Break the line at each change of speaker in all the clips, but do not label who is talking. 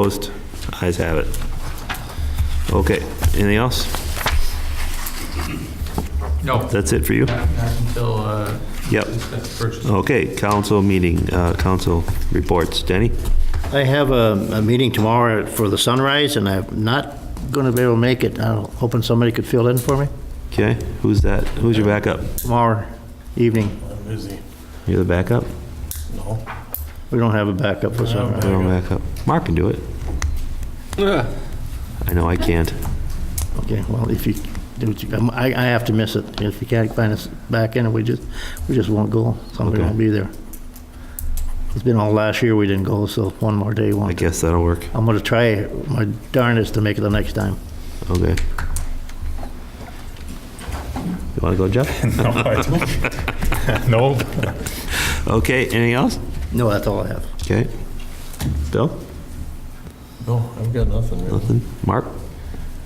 Opposed? Eyes have it. Okay, anything else?
No,
That's it for you?
not not until, uh,
Yep.
that's purchased.
Okay, council meeting, uh, council reports. Danny?
I have a, a meeting tomorrow for the sunrise, and I'm not going to be able to make it. I'm hoping somebody could fill in for me
Okay, who's that? Who's your backup?
tomorrow evening.
I'm busy.
You're the backup?
No.
We don't have a backup for sunrise.
You're the backup. Mark can do it. I know I can't.
Okay, well, if you, I, I have to miss it. If you can't find us back in, we just, we just won't go. Somebody
Okay.
won't be there. It's been all last year we didn't go, so one more day,
I
one.
guess that'll work.
I'm going to try my darndest to make it the next time.
Okay. You want to go, Jeff?
No, I don't. No.
Okay, anything else?
No, that's all I have.
Okay. Bill?
No, I've got nothing really.
Nothing? Mark?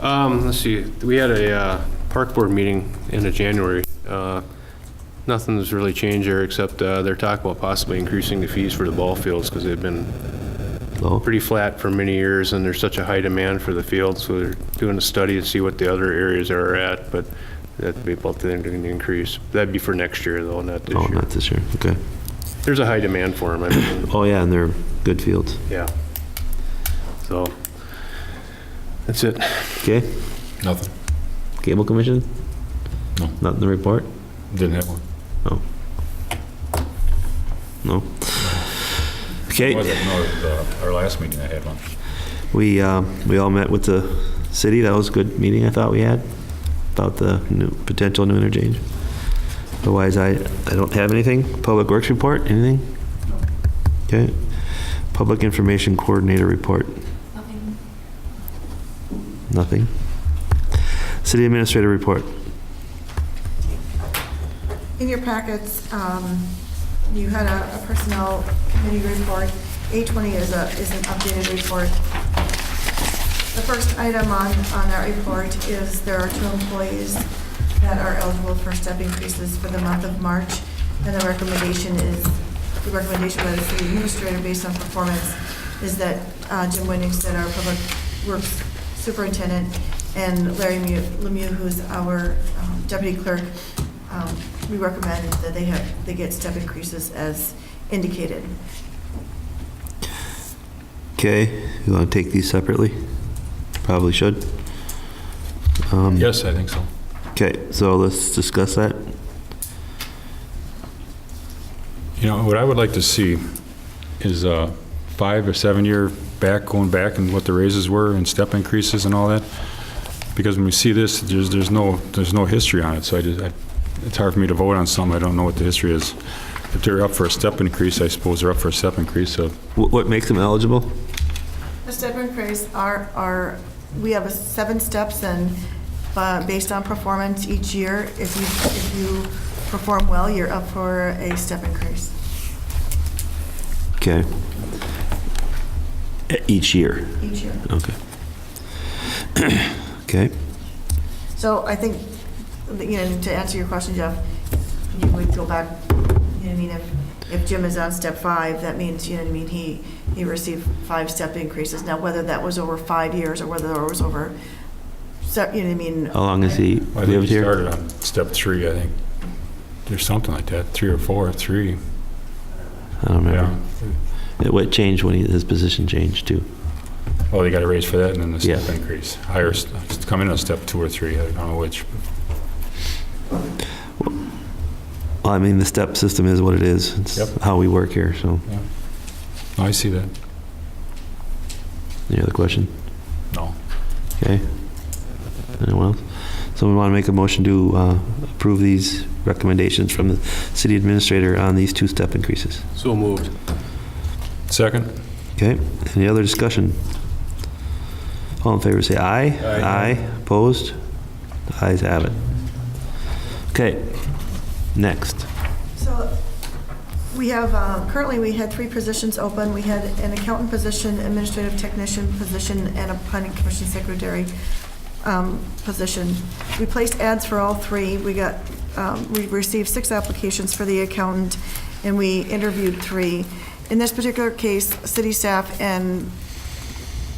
Um, let's see, we had a, uh, park board meeting end of January. Uh, Nothing's really changed there, except, uh, they're talking about possibly increasing the fees for the ball fields, because they've been
Low?
pretty flat for many years, and there's such a high demand for the field, so they're doing a study to see what the other areas are at, but that'd be about the the increase. That'd be for next year, though, not
Oh,
this year.
not this year. Okay.
There's a high demand for them, I mean,
Oh, yeah, and they're good fields.
yeah. So, that's it.
Okay?
Nothing.
Cable commission?
No.
Nothing to report?
Didn't have one.
No? Okay,
Wasn't, no, the- uh, our last meeting I had one.
we, um, we all met with the city. That was a good meeting I thought we had about the new, potential new interchange. Otherwise, I, I don't have anything. Public Works report, anything? Okay. Public Information Coordinator report,
Nothing.
nothing. City Administrator report.
In your packets, um, you had a a personnel committee report. A20 is a, is an updated report. The first item on, on that report is there are two employees that are eligible for step increases for the month of March, and the recommendation is, the recommendation by the city administrator based on performance is that uh, Jim Winningston, our public works superintendent, and Larry Mu- Lemieux, who's our um, deputy clerk, um, we recommend that they have, they get step increases as indicated.
Okay, you want to take these separately? Probably should. Um,
Yes, I think so.
Okay, so let's discuss that.
You know, what I would like to see is uh five or seven-year back, going back and what the raises were and step increases and all that. Because when we see this, there's, there's no, there's no history on it, so I just, I- it's hard for me to vote on something, I don't know what the history is. If they're up for a step increase, I suppose they're up for a step increase, so
What, what makes them eligible?
The step increase are, are, we have a seven steps and, uh, based on performance each year, if you, if you perform well, you're up for a step increase.
Okay. E- Each year,
Each year.
okay. Okay,
So I think, you know, to answer your question, Jeff, you would go back, you know, I mean, if, if Jim is on step five, that means, you know, what I mean, he, he received five step increases. Now, whether that was over five years or whether it was over, se- you know, what I mean.
how long has he
I think
lived
he
here?
started on step three, I think. There's something like that, three or four, three.
I don't remember.
Yeah.
It- What changed when he- his position changed too?
Oh, they got a raise for that and then the step
Yeah.
increase. Higher, st- it's come in on step two or three, I don't know which.
Well, I mean, the step system is what it is. It's
Yep.
how we work here, so.
No, I see that.
Any other question?
No.
Okay. Anyone else? Someone want to make a motion to uh, approve these recommendations from the city administrator on these two-step increases?
So moved.
Second?
Okay, any other discussion? All in favor, say aye.
Aye.
opposed? Ayes have it. Okay, next.
So we have, uh, currently, we had three positions open. We had an accountant position, administrative technician position, and a planning commission secretary um, position. We placed ads for all three. We got, um, we received six applications for the accountant, and we interviewed three. In this particular case, city staff and